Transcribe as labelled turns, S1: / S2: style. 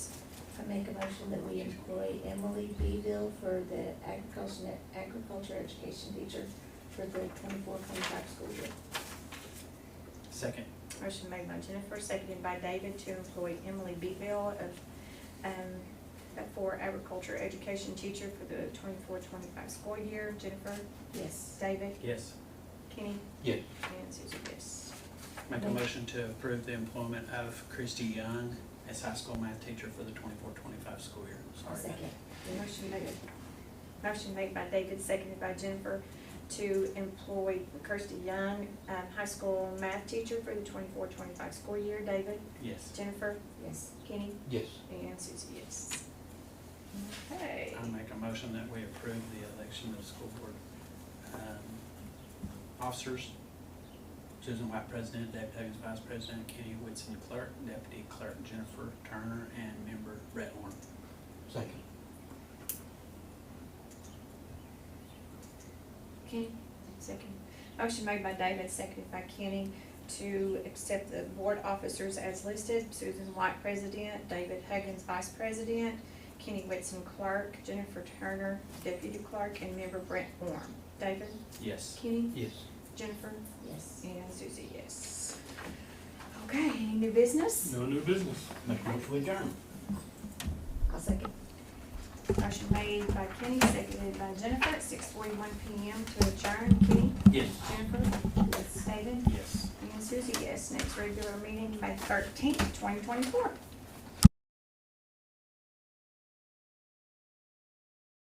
S1: make a motion that we employ Emily Beville for the agriculture, agriculture education teacher for the 24-25 school year.
S2: Second.
S3: Motion made by Jennifer, seconded by David to employ Emily Beville of, um, for agriculture education teacher for the 24-25 school year. Jennifer,
S1: Yes.
S3: David,
S2: Yes.
S3: Kenny?
S4: Yeah.
S3: And Susie, yes.
S2: Make a motion to approve the employment of Christy Young as high school math teacher for the 24-25 school year.
S1: I'll
S2: Sorry.
S1: second.
S3: Motion made, motion made by David, seconded by Jennifer to employ Kirsty Young, um, high school math teacher for the 24-25 school year. David,
S2: Yes.
S3: Jennifer,
S1: Yes.
S3: Kenny,
S4: Yes.
S3: and Susie, yes. Okay.
S2: I make a motion that we approve the election of school board um, officers. Susan White, president, Dave Huggins, vice president, Kenny Whitson, clerk, deputy clerk Jennifer Turner, and member Brett Orm.
S4: Second.
S3: Kenny, second. Motion made by David, seconded by Kenny to accept the board officers as listed. Susan White, president, David Huggins, vice president, Kenny Whitson, clerk, Jennifer Turner, deputy clerk, and member Brent Orm. David,
S2: Yes.
S3: Kenny,
S4: Yes.
S3: Jennifer,
S1: Yes.
S3: and Susie, yes. Okay, any new business?
S4: No new business. Make a motion to adjourn.
S1: I'll second.
S3: Motion made by Kenny, seconded by Jennifer at six forty-one PM to adjourn. Kenny,
S2: Yes.
S3: Jennifer,
S1: Yes.
S3: David,
S2: Yes.
S3: And Susie, yes, next regular meeting, May thirteenth, twenty twenty-four.